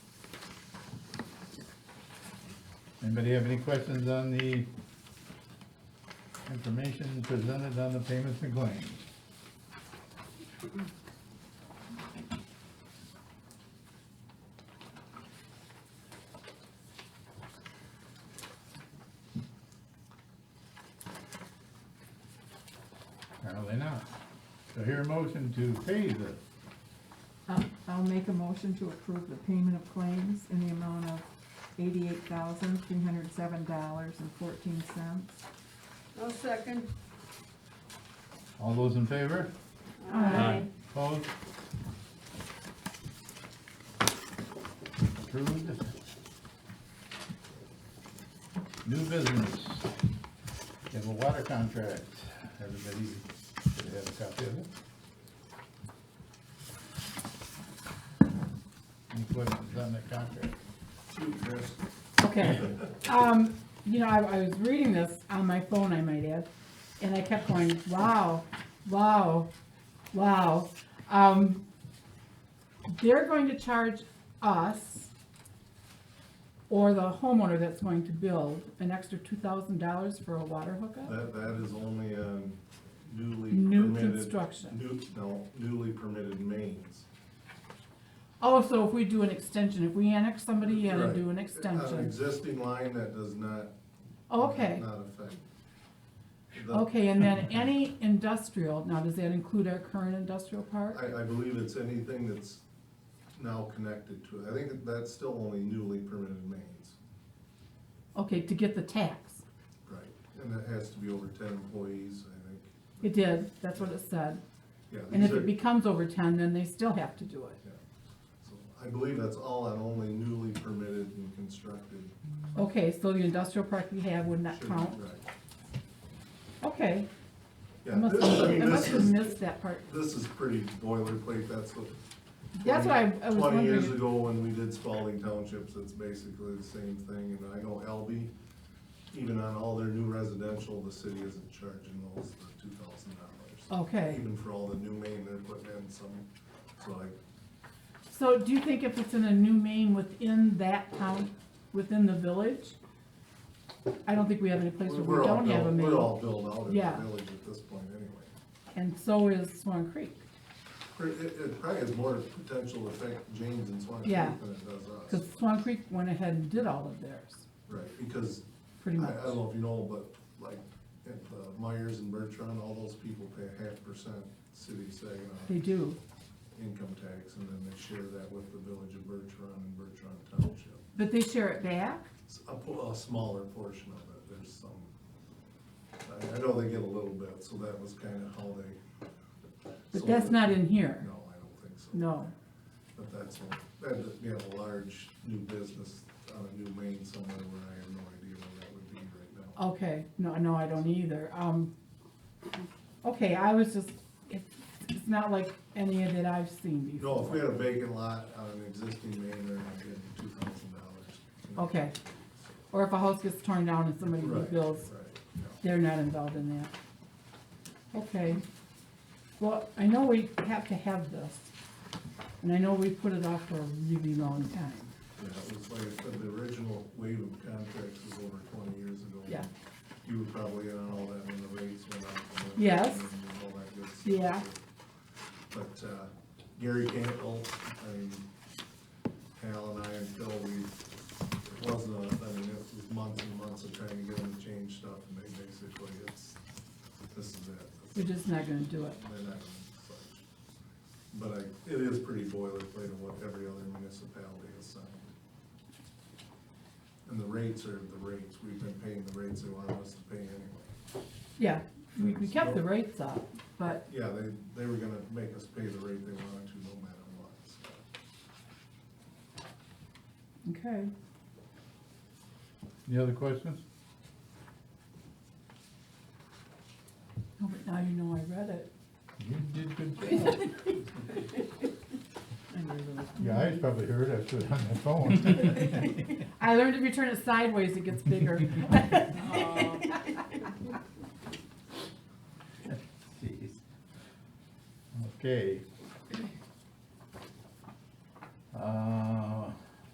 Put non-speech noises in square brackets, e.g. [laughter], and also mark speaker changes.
Speaker 1: Anybody have any questions on the information presented on the payments and claims? Apparently not. So here a motion to pay the,
Speaker 2: I'll, I'll make a motion to approve the payment of claims in the amount of eighty-eight thousand, three hundred seven dollars and fourteen cents.
Speaker 3: I'll second.
Speaker 1: all those in favor?
Speaker 3: Aye.
Speaker 1: Opposed? Approved. New business. We have a water contract. Everybody should have a copy of it. Any questions on that contract?
Speaker 4: Okay, um, you know, I, I was reading this on my phone, I might add, and I kept going, wow, wow, wow. Um, they're going to charge us or the homeowner that's going to build an extra two thousand dollars for a water hookup?
Speaker 5: That, that is only um, newly
Speaker 4: New
Speaker 5: permitted.
Speaker 4: construction.
Speaker 5: New, no, newly permitted mains.
Speaker 4: Also, if we do an extension, if we annex somebody in and
Speaker 5: Right.
Speaker 4: do an
Speaker 5: An
Speaker 4: extension,
Speaker 5: existing line that does not.
Speaker 4: okay.
Speaker 5: Not affect. The-
Speaker 4: Okay, and then any industrial, now does that include our current industrial park?
Speaker 5: I, I believe it's anything that's now connected to it. I think that's still only newly permitted mains.
Speaker 4: Okay, to get the tax.
Speaker 5: Right. And that has to be over ten employees, I think.
Speaker 4: It did, that's what it said.
Speaker 5: Yeah.
Speaker 4: And
Speaker 5: these
Speaker 4: if
Speaker 5: are-
Speaker 4: it becomes over ten, then they still have to do it.
Speaker 5: yeah. So I believe that's all on only newly permitted and constructed.
Speaker 4: Okay, so the industrial park we have would not
Speaker 5: should be-
Speaker 4: count.
Speaker 5: Right.
Speaker 4: Okay,
Speaker 5: Yeah,
Speaker 4: I must,
Speaker 5: this- I
Speaker 4: I
Speaker 5: mean,
Speaker 4: must
Speaker 5: this
Speaker 4: have
Speaker 5: is-
Speaker 4: missed that part.
Speaker 5: This is pretty boilerplate, that's what.
Speaker 4: That's what I- I was
Speaker 5: Twenty years
Speaker 4: wondering.
Speaker 5: ago when we did Spalding Townships, it's basically the same thing, and I know Albee, even on all their new residential, the city isn't charging those the two thousand dollars.
Speaker 4: Okay.
Speaker 5: Even for all the new main they're putting in some, so I,
Speaker 4: So do you think if it's in a new main within that town, within the village? I don't think we have any place where
Speaker 5: we're
Speaker 4: we
Speaker 5: all
Speaker 4: don't have a
Speaker 5: built, we're all
Speaker 4: main.
Speaker 5: built out in
Speaker 4: Yeah.
Speaker 5: the village at this point anyway.
Speaker 4: And so is Swan Creek,
Speaker 5: Pr- It, it probably has more potential effect James and Swan Creek
Speaker 4: Yeah.
Speaker 5: than it does us,
Speaker 4: because Swan Creek went ahead and did all of theirs,
Speaker 5: right, because
Speaker 4: pretty
Speaker 5: I,
Speaker 4: much.
Speaker 5: I don't know if you know, but like, at uh, Myers and Bertrand, all those people pay a half percent city
Speaker 4: They
Speaker 5: Saginaw
Speaker 4: do.
Speaker 5: income tax, and then they share that with the village of Bertrand and Bertrand Township.
Speaker 4: But they share it back?
Speaker 5: It's a, po- a smaller portion of it, there's some, I, I know they get a little bit, so that was kinda how they.
Speaker 4: But that's not in here.
Speaker 5: No, I don't think so.
Speaker 4: No.
Speaker 5: But that's, a- that, you have a large new business on a new main somewhere where I have no idea where that would be right now.
Speaker 4: Okay, no, no, I don't either. Um, okay, I was just, it's, it's not like any of that I've seen before.
Speaker 5: No, if we had a vacant lot on an existing main, they're not getting two thousand dollars.
Speaker 4: Okay. Or if a house gets torn down and somebody
Speaker 5: Right,
Speaker 4: rebuilds,
Speaker 5: right, yeah.
Speaker 4: they're not involved in that. Okay. Well, I know we have to have this, and I know we put it off for a really long time.
Speaker 5: Yeah, it was like, I said, the original wave of contracts was over twenty years ago.
Speaker 4: Yeah.
Speaker 5: You were probably in on all that when the rates went up. and the-
Speaker 4: Yes.
Speaker 5: and all that good stuff.
Speaker 4: Yeah.
Speaker 5: But, uh, Gary Campbell, I mean, Hal and I, until we, it wasn't, a- I mean, it was months and months of trying to get them to change stuff, and they basically, it's, this is it.
Speaker 4: We're just not gonna do it.
Speaker 5: They're not gonna budge. But I, it is pretty boilerplate of what every other municipality has signed. And the rates are the rates, we've been paying the rates they wanted us to pay anyway.
Speaker 4: Yeah, we, we kept the rates up, but
Speaker 5: Yeah, they, they were gonna make us pay the rate they wanted to no matter what, so.
Speaker 4: Okay,
Speaker 1: Any other questions?
Speaker 4: no, Oh, but now you know I read it.
Speaker 1: You did good job.
Speaker 4: I really-
Speaker 1: Your eyes probably hurt after on the phone. [laughs]
Speaker 4: I learned if you turn it sideways, it gets bigger. [laughs]
Speaker 1: Okay, Uh,